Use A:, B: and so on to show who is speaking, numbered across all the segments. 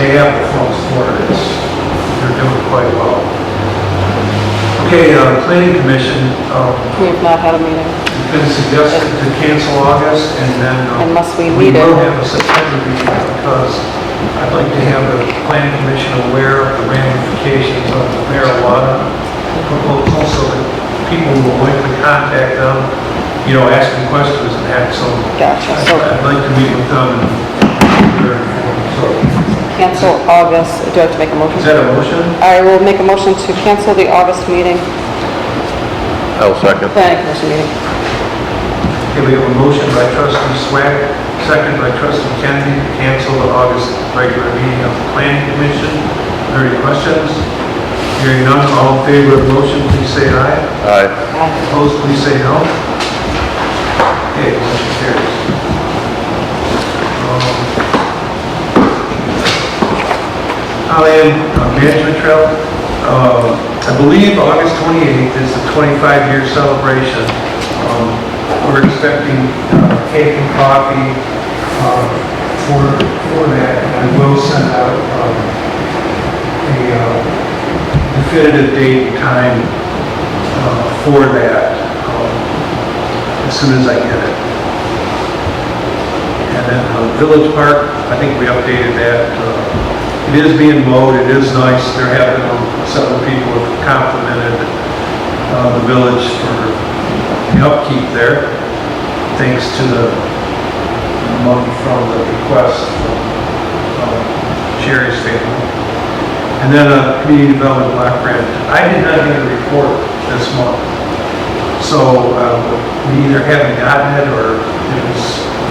A: have the full support. It's, they're doing quite well. Okay, uh, planning commission, uh,
B: We have not had a meeting.
A: it's been suggested to cancel August and then. uh,
B: Unless we need it.
A: We will have a September meeting because I'd like to have the planning commission aware of the ramifications of the marijuana proposal so that people will likely contact them, you know, asking questions and have some.
B: Gotcha. So
A: I'd like to meet with them. So,
B: cancel August, do I have to make a
A: is
B: motion?
A: that a motion?
B: I will make a motion to cancel the August meeting,
C: I'll second.
B: planning commission meeting.
A: Okay, we have a motion by trustee Swag, second by trustee Kennedy, to cancel the August regular meeting of the planning commission. Are there Any questions? Hearing none, all in favor of the motion, please say aye.
C: Aye.
B: Aye.
A: Opposed, please say no. Okay, motion carries. Um, Holly Ann, uh, Management Trail, uh, I believe August 28th is the 25-year celebration. Um, We're expecting uh, cake and coffee uh, for for that. I will send out um, a uh, definitive date and time uh, for that um, as soon as I get it. And then uh, Village Park, I think we updated that. uh, It is being mowed, it is nice. There have been um, several people who have complimented uh, the village for the upkeep there, thanks to the money from the request from um, Sherry's family. And then uh, community development block grant. I did not get a report this month. So uh, we either haven't gotten it or it was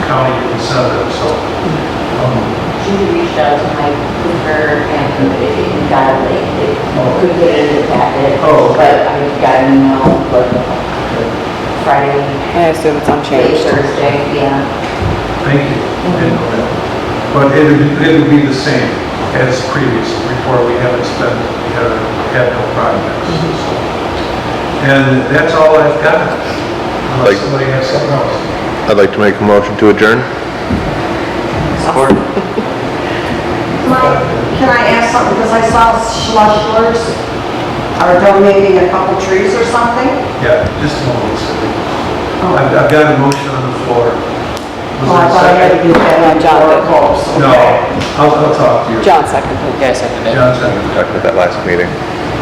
A: county that sent it, so. um,
D: She reached out to Mike Cooper and and got it late. They Couldn't get it in the packet.
A: Oh.
D: But I got an email, but Friday,
B: I assume it's
D: late
B: unchanged.
D: Thursday, yeah.
A: Thank you. I didn't know that. But it would, it would be the same as previous report. We haven't spent, we haven't had no projects, so. And that's all I've got. Unless
C: Like-
A: somebody has something else.
C: I'd like to make a motion to adjourn.
E: Can I, can I ask something, because I saw Schlusslers are donating a couple trees or something?
A: Yeah, just a moment. Cindy.
E: Oh.
A: I've, I've got a motion on the floor. Was
E: Well, I thought Oh, I had
A: there a
E: to
A: second?
E: do that
B: No, John
E: before it goes.
B: did.
A: No, I'll, I'll talk to you.
B: John seconded.
F: Yes, I did.
A: John, second.
C: We talked about that last meeting.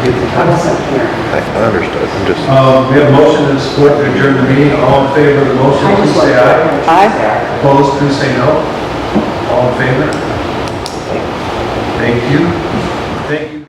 E: I wasn't here.
C: I I understood. I'm just,
A: Um, we have a motion and support to adjourn the meeting. All in favor of the motion,
E: I
A: please
E: just
A: say
E: wasn't
A: aye.
E: there.
B: Aye.
A: Opposed, please say no. All in favor? Thank you. Thank you.